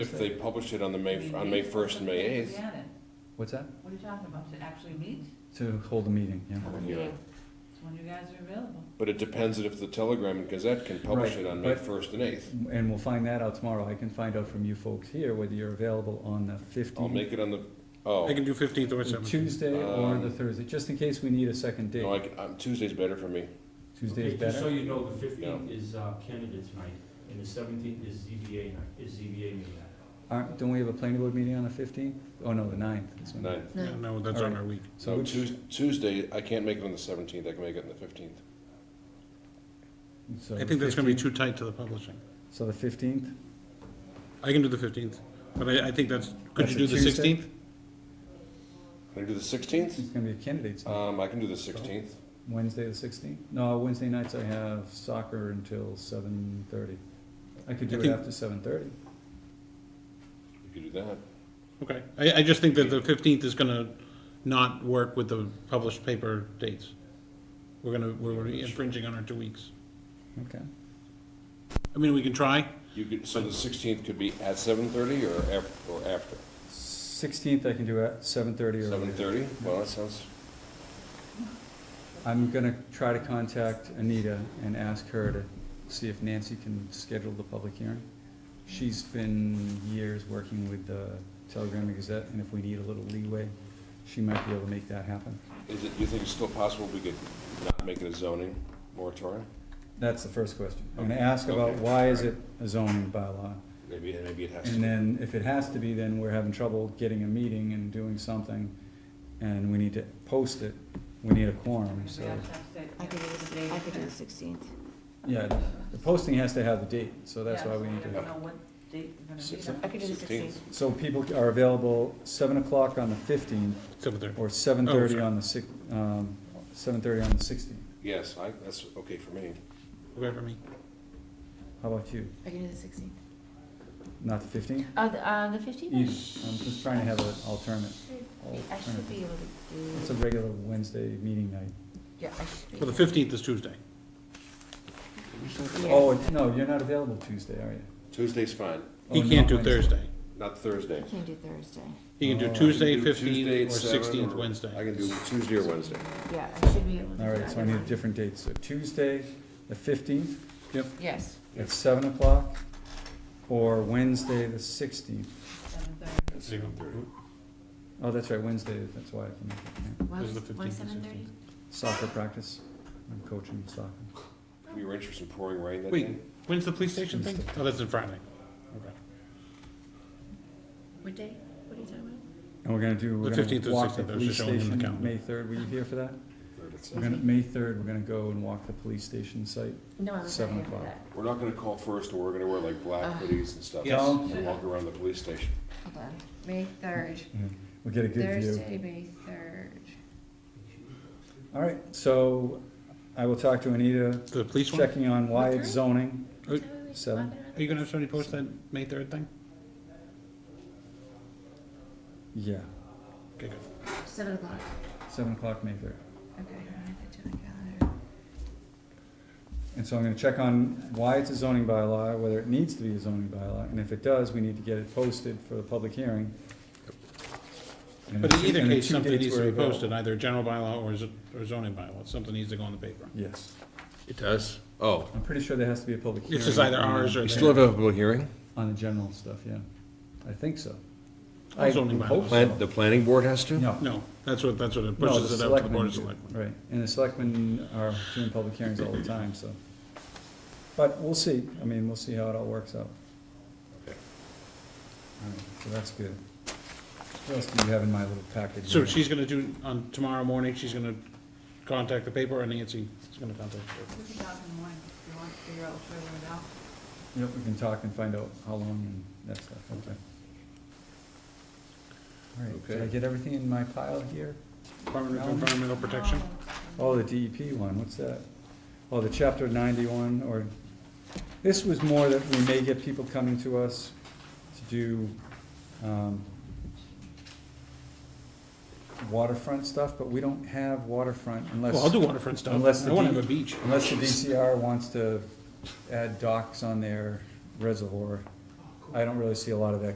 If they publish it on the May, on May first and May eighth, Janet, What's that? what are you talking about, to actually meet? To hold a meeting, yeah. Um, yeah. It's when you guys are available. But it depends if the Telegram and Gazette can publish Right, it on May but- first and eighth. And we'll find that out tomorrow. I can find out from you folks here whether you're available on the I'll make fifteenth, it on the, oh, I can do fifteenth or the seventeenth. Tuesday or the Um, Thursday, just in case we need a second no, I, date. can- um, Tuesday's better for me. Tuesday's Okay, Just so better. you know, the fifteenth is uh, candidates night, and the seventeenth is ZBA night, is ZBA meeting. Aren't, don't we have a planning board meeting on the fifteenth? Oh, no, the ninth. Nine. No, that's on our week. So So which, Tues- Tuesday, I can't make it on the seventeenth, I can make it on the fifteenth. so I think that's gonna be 15th? too tight to the publishing. So the fifteenth? I can do the fifteenth, but I, I think that's, could That's you a do the Tuesday? sixteenth? Can I do the sixteenth? It's gonna be a candidate's night. Um, I can do the sixteenth. Wednesday the sixteenth? No, Wednesday nights I have soccer until seven thirty. I could I do it think- after seven thirty. You could do that. Okay, I, I just think that the fifteenth is gonna not work with the published paper dates. We're gonna, we're gonna be infringing on our two weeks. Okay. I mean, we can try, You could, so the sixteenth could be at seven thirty or af, or after? Sixteenth I can do at seven thirty or Seven later. thirty? Well, that sounds, I'm gonna try to contact Anita and ask her to see if Nancy can schedule the public hearing. She's been years working with the Telegram and Gazette, and if we need a little leeway, she might be able to make that happen. is it, you think it's still possible we could not make it a zoning moratorium? That's the first question. I'm gonna Okay, ask about okay, why is it alright. a zoning bylaw? Maybe, maybe it has to. And then if it has to be, then we're having trouble getting a meeting and doing something, and we need to post it, we need a quorum, so. We have to have to- I could do the, I could do the sixteenth. Yeah, the posting has to have the date, so that's Yeah, why we so need don't to. know what date we're gonna Six- meet on. I could do the 16th. sixteenth. So people are available seven o'clock on the fifteenth, seven thirty. or seven thirty Oh, sorry. on the six, um, seven thirty on the sixteenth. Yes, I, that's okay for me. Okay for me. How about you? I can do the sixteenth. Not the fifteenth? Uh, the, uh, the fifteenth? Either, I'm just trying to have an alternate. I should be able It's to a do, regular Wednesday meeting night. yeah, I should be. Well, the fifteenth is Tuesday. Yeah. Oh, no, you're not available Tuesday, are you? Tuesday's fine, Oh, He can't not do Wednesday. Thursday. not Thursday. I can't do Thursday. He can Oh, do I can I Tuesday, can do Tuesday fifteenth, at or seven, sixteenth, or I Wednesday. can do Tuesday or Wednesday. Yeah, I should be able to do All right, so I either need one. different dates. So Tuesday, the fifteenth, Yes, at seven o'clock, or Wednesday, the sixteenth. Seven thirty. At seven thirty. Oh, that's right, Wednesday, that's why I can make it. yeah. why Those are was, the why 15th and seven thirty? Soccer practice, I'm coaching soccer. We were interested in pouring rain that Wait, day. when's the police station thing? Oh, that's in Friday. Okay. What day? What are you talking about? And we're gonna do, we're The gonna 15th or walk the 16th, I was police just showing them the station, calendar. May third, were you here for that? Third at We're seven. gonna, May third, we're gonna go and walk the police station site. No, I was not Seven here for o'clock. that. We're not gonna call first, or we're gonna wear like black Ugh. hoodies and stuff. Yes. And walk around the police station. Hold on, May third, Mm-hmm. We'll get a good view. Thursday, May third. All right, so I will talk to Anita, The police one? checking on why What it's time? zoning. Oh, seven. Are you gonna have somebody post that May third thing? Yeah, Okay, good. Seven o'clock, seven o'clock, May third. okay, I have to check my calendar. And so I'm gonna check on why it's a zoning bylaw, whether it needs to be a zoning bylaw, and if it does, we need to get it posted for the public hearing. And But in the- either and the case, two something dates needs to were be available. posted, either general bylaw or z- or zoning bylaw, something needs to go on the paper. Yes, It does? Oh. I'm pretty sure there has to be a public hearing. This is either ours or You still have theirs. a public hearing? On the general stuff, yeah, I think so. On I zoning hope bylaws. so. Plan, the planning board has to? No. No, that's what, that's what it No, pushes it up to the selectmen board of do. selectmen. Right, and the selectmen are doing public hearings all the time, so. But we'll see, I mean, we'll see how it all works out. Okay. All right, so that's good. What else do you have in my little package? So here? she's gonna do, on tomorrow morning, she's gonna contact the paper, or Nancy is gonna contact the paper. We can talk in the morning if you want to figure out, figure it out. Yep, we can talk and find out how long and that stuff, okay. All right, did I Okay. get everything in my pile here? Department of Environmental Protection. Oh, the DEP one, what's that? Oh, the chapter ninety-one, or, this was more that we may get people coming to us to do, um, waterfront stuff, but we don't have waterfront unless. Well, I'll do waterfront stuff. Unless I the wanna D- have a beach. Unless the DCR wants to add docks on their reservoir. I don't really see a lot of that